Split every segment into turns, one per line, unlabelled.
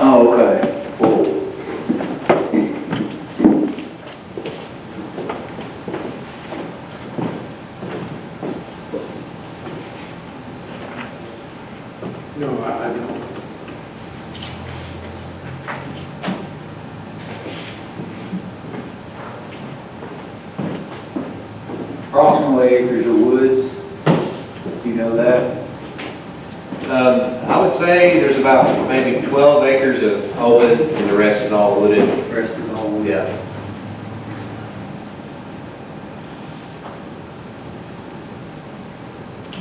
Oh, okay. Whoa.
No, I I don't.
Approximately acres of woods, you know that?
Um, I would say there's about maybe twelve acres of open and the rest is all wooded.
Rest is all woods.
Yeah.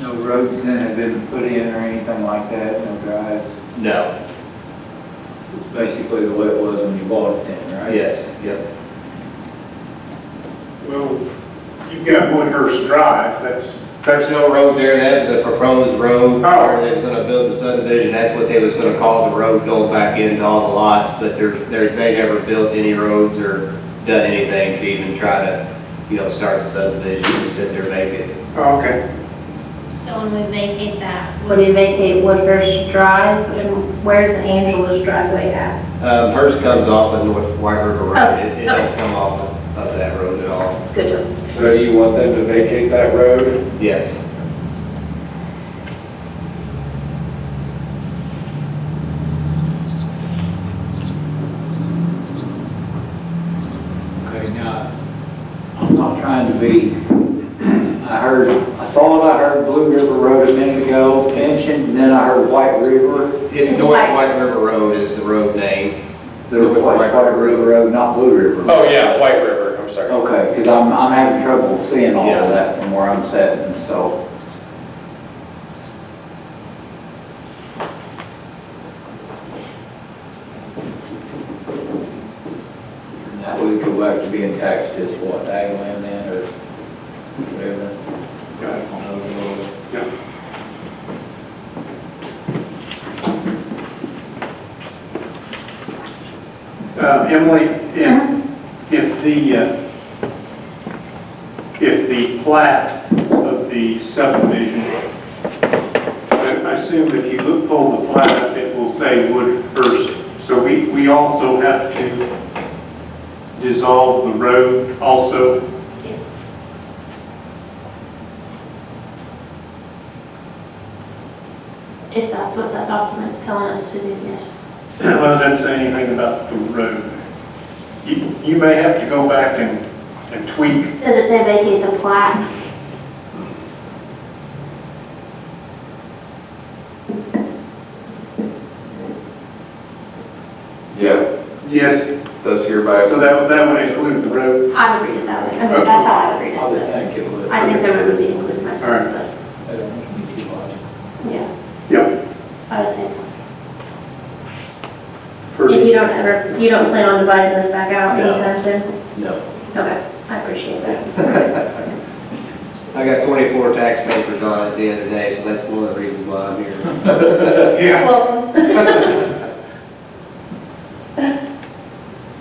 No roads then have been put in or anything like that, no drives.
No,
It's basically the way it was when you bought it then, right?
yes, yep.
Well, you've got Woodhurst Drive, that's,
Church Hill Road there, that was a proposed road
Oh.
where they was gonna build the subdivision. That's what they was gonna call the road going back into all the lots, but they're, they're, they never built any roads or done anything to even try to, you know, start the subdivision, just sit there vacant.
oh, okay.
So when we vacate that,
When you vacate Woodhurst Drive, and where's Angela's driveway at?
Um, hers comes off of North White River Road. It, it
okay.
don't come off of- of that road at all.
Good to
So you want them to vacate that road?
Yes.
Okay, now, I'm not trying to be, I heard, I thought I heard Blue River Road a minute ago mentioned, and then I heard White River.
It's
It's
North
White.
White River Road is the road name.
There was White River Road, not Blue River. Road.
Oh, yeah, White River, I'm sorry.
Okay, because I'm, I'm having trouble seeing all
Yeah.
of that from where I'm sitting, so. And That would go back to being taxed as what, ag land then, or whatever?
Got it. Yeah. Uh, Emily, if, if the, uh, if the plat of the subdivision, I I assume if you look, pull the plat up, it will say Woodhurst. So we, we also have to dissolve the road also.
yes. If that's what that document's telling us to do, yes.
Well, it doesn't say anything about the road. You, you may have to go back and, and tweak.
Does it say vacate the plat?
Yeah,
Yes.
that's hereby.
So that, that would include the road.
I would read it that way. I mean, that's how I would read
I would
it.
think it would.
but I think the road would be included myself, but,
I don't want to be too much.
yeah,
Yep.
I would say so.
And you don't ever, you don't plan on dividing this back out
No.
anytime soon?
No.
Okay, I appreciate that.
I got 24 tax papers on at the end of the day, so that's one of the reasons why I'm here.
Yeah.
Well.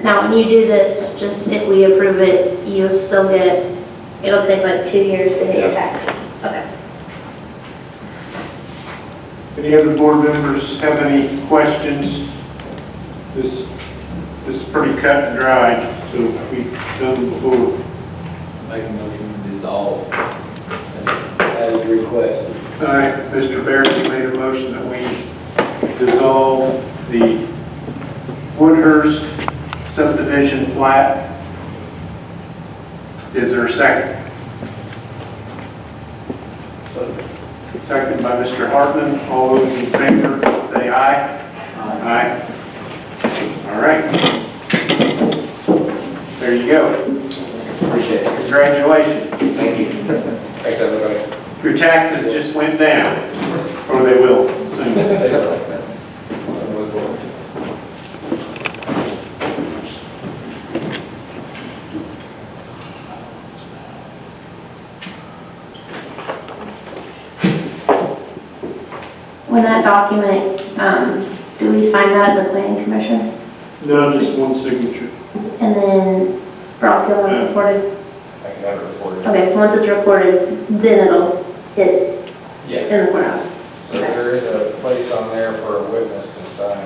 Now, when you do this, just if we approve it, you'll still get, it'll take like two years to hit your taxes. Okay.
Any other board members have any questions? This, this is pretty cut and dried, so we've done before.
Make a motion to dissolve. As requested.
All right, Mr. Barrett, you made a motion that we dissolve the Woodhurst subdivision plat. Is there a second? Second by Mr. Hartman. All those in favor, say aye. Aye. All right. There you go.
Appreciate it.
Congratulations.
Thank you. Thanks, everybody.
Your taxes just went down, or they will soon.
When that document, um, do we sign that as a planning commission?
No, just one signature.
And then Brock, you'll have recorded,
I can have it recorded.
okay, once it's recorded, then it'll hit
Yeah,
in the courthouse.
so there is a place on there for a witness to sign.